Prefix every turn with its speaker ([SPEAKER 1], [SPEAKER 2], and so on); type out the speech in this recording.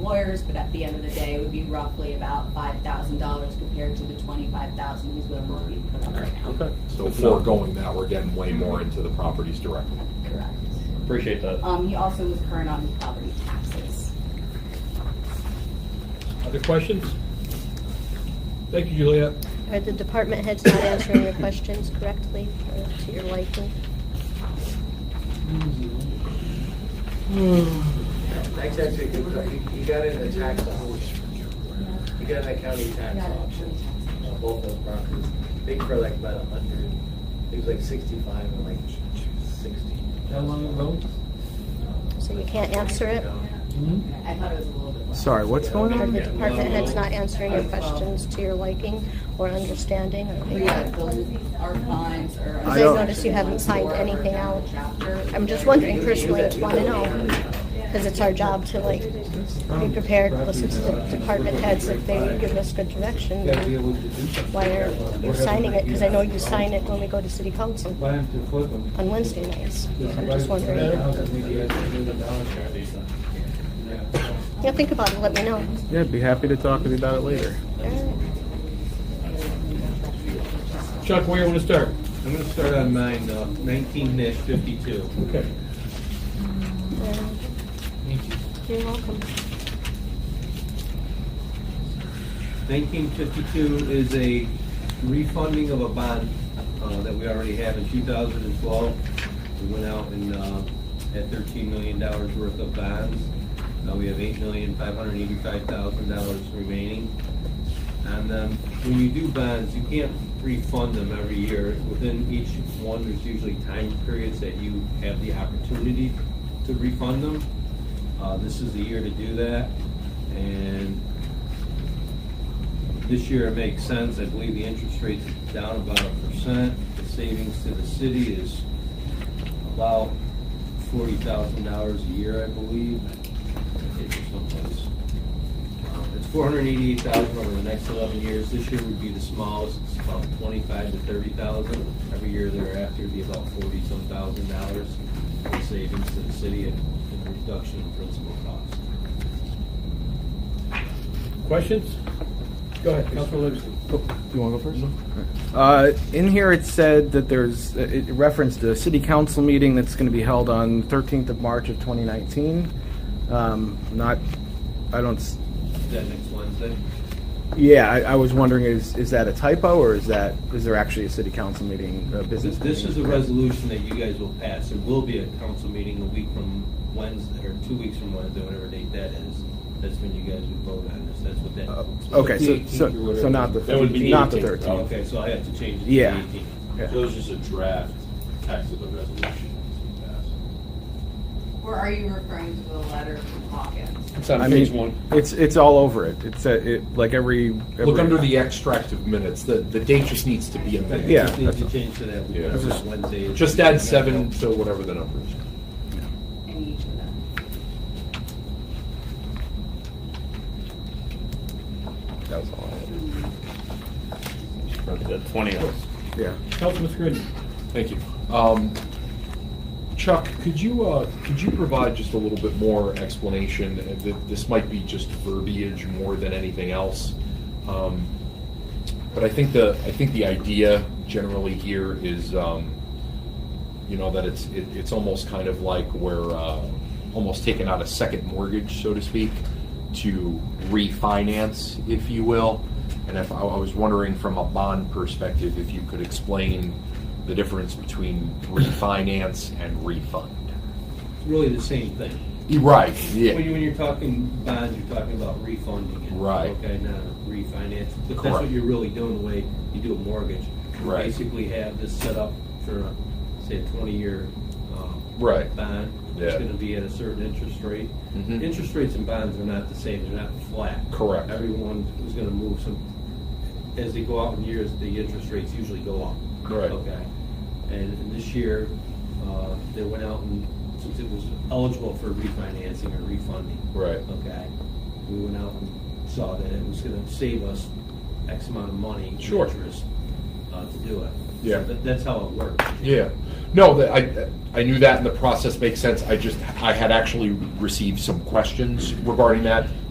[SPEAKER 1] lawyers, but at the end of the day, it would be roughly about five thousand dollars compared to the twenty-five thousand he's willing to be put up right now.
[SPEAKER 2] Okay.
[SPEAKER 3] So foregoing that, we're getting way more into the properties directly.
[SPEAKER 1] Correct.
[SPEAKER 2] Appreciate that.
[SPEAKER 1] Um, he also was current on his property taxes.
[SPEAKER 4] Other questions? Thank you, Juliet.
[SPEAKER 5] Are the department heads not answering your questions correctly or to your liking?
[SPEAKER 6] Tax actually, he got in a tax option. He got in a county tax option on both those properties. I think for like about a hundred, it was like sixty-five and like sixty.
[SPEAKER 7] How long ago?
[SPEAKER 5] So you can't answer it? Mm-hmm.
[SPEAKER 1] I thought it was a little bit less.
[SPEAKER 8] Sorry, what's going
[SPEAKER 5] Are the
[SPEAKER 8] on?
[SPEAKER 5] department heads not answering your questions to your liking or understanding?
[SPEAKER 1] But yeah, those are fines or.
[SPEAKER 8] I don't-
[SPEAKER 5] notice you haven't signed anything out.
[SPEAKER 1] Chapter.
[SPEAKER 5] I'm just wondering personally, just want to know, because it's our job to like be prepared, listen to the department heads if they give us good direction.
[SPEAKER 7] Gotta be able to do something.
[SPEAKER 5] Why are you signing it? Because I know you sign it when we go to city council
[SPEAKER 7] Buy them to flip them.
[SPEAKER 5] on Wednesday nights. So I'm just wondering. Yeah, think about it, let me know.
[SPEAKER 8] Yeah, I'd be happy to talk with you about it later.
[SPEAKER 5] All right.
[SPEAKER 4] Chuck, where you want to start?
[SPEAKER 7] I'm gonna start on mine, uh, nineteen dash fifty-two.
[SPEAKER 4] Okay.
[SPEAKER 5] Um, You're welcome.
[SPEAKER 7] Nineteen fifty-two is a refunding of a bond uh, that we already have in two thousand and twelve. We went out and uh, had thirteen million dollars worth of bonds. Now we have eight million, five hundred eighty-five thousand dollars remaining. And um, when you do bonds, you can't refund them every year. Within each one, there's usually time periods that you have the opportunity to refund them. Uh, This is the year to do that. And this year it makes sense, I believe the interest rate's down about a percent, the savings to the city is about forty thousand dollars a year, I believe. I think it's someplace. Uh, It's four hundred and eighty-eight thousand over the next eleven years, this year would be the smallest, it's about twenty-five to thirty thousand. Every year thereafter would be about forty-some thousand dollars in savings to the city and and reduction in principal cost.
[SPEAKER 4] Questions? Go ahead, Councilor Livingston.
[SPEAKER 8] Oh, You want to go first? Uh, in here, it said that there's, it referenced a city council meeting that's going to be held on 13th of March of 2019. Um, Not, I don't, s-
[SPEAKER 7] Is that next Wednesday?
[SPEAKER 8] yeah, I, I was wondering, is, is that a typo or is that, is there actually a city council meeting, a business?
[SPEAKER 7] This this is
[SPEAKER 8] meeting?
[SPEAKER 7] a resolution that you guys will pass. There will be a council meeting a week from Wednesday, or two weeks from Wednesday, whatever date that is. That's when you guys will vote on this. That's what
[SPEAKER 8] Uh,
[SPEAKER 7] that.
[SPEAKER 8] Okay, so,
[SPEAKER 2] 18th or
[SPEAKER 8] so, so
[SPEAKER 2] whatever.
[SPEAKER 8] not the,
[SPEAKER 2] That would be
[SPEAKER 8] not the
[SPEAKER 2] 18th.
[SPEAKER 8] 13th.
[SPEAKER 7] Okay, so I have to change it to
[SPEAKER 8] Yeah.
[SPEAKER 7] the eighteenth.
[SPEAKER 8] Yeah.
[SPEAKER 9] Those is a draft text of the resolution that's
[SPEAKER 1] Or are you referring to the letter from Hawkins?
[SPEAKER 2] It's on
[SPEAKER 8] I
[SPEAKER 2] page
[SPEAKER 8] mean,
[SPEAKER 2] one.
[SPEAKER 8] It's, it's all over it. It's, a- it, like every.
[SPEAKER 3] Look
[SPEAKER 8] every-
[SPEAKER 3] under the extract of minutes, the, the date just needs to be amended.
[SPEAKER 8] Yeah.
[SPEAKER 7] Just need to change to that week,
[SPEAKER 3] Yeah.
[SPEAKER 7] that's just Wednesday.
[SPEAKER 3] Just add seven to whatever the number is.
[SPEAKER 1] In each of them?
[SPEAKER 8] That was all. I
[SPEAKER 2] Mm-hmm. The twenty of us.
[SPEAKER 8] had. Yeah.
[SPEAKER 4] Councilman Scrivens.
[SPEAKER 3] Thank you. Um, Chuck, could you, uh, could you provide just a little bit more explanation? Uh, th- This might be just verbiage more than anything else. Um, But I think the, I think the idea generally here is, um, you know, that it's, it- it's almost kind of like we're uh, almost taking out a second mortgage, so to speak, to refinance, if you will. And if, I I was wondering from a bond perspective, if you could explain the difference between refinance and refund.
[SPEAKER 7] It's Really the same thing.
[SPEAKER 3] Right,
[SPEAKER 7] When you, when you're talking bonds, you're talking about refunding it.
[SPEAKER 3] Right.
[SPEAKER 7] Okay, not refinance, but that's
[SPEAKER 3] Correct.
[SPEAKER 7] what you're really doing, the way you do a mortgage. You
[SPEAKER 3] Right.
[SPEAKER 7] Basically have this set up for, a, say, a twenty-year, um.
[SPEAKER 3] Right.
[SPEAKER 7] Bond, it's
[SPEAKER 3] Yeah.
[SPEAKER 7] gonna be at a certain interest rate.
[SPEAKER 3] Mhm.
[SPEAKER 7] Interest rates and bonds are not the same, they're not flat.
[SPEAKER 3] Correct.
[SPEAKER 7] Everyone is gonna move some, as they go out in years, the interest rates usually go up.
[SPEAKER 3] Correct.
[SPEAKER 7] Okay. And and this year, uh, they went out and, since it was eligible for refinancing or refunding.
[SPEAKER 3] Right.
[SPEAKER 7] Okay, we went out and saw that it was gonna save us X amount of money. in
[SPEAKER 3] Sure.
[SPEAKER 7] Interest, uh, to do it.
[SPEAKER 3] Yeah.
[SPEAKER 7] So that- That's how it works.
[SPEAKER 3] Yeah. No, that I, I knew that and the process makes sense. I just, I had actually received some questions regarding that.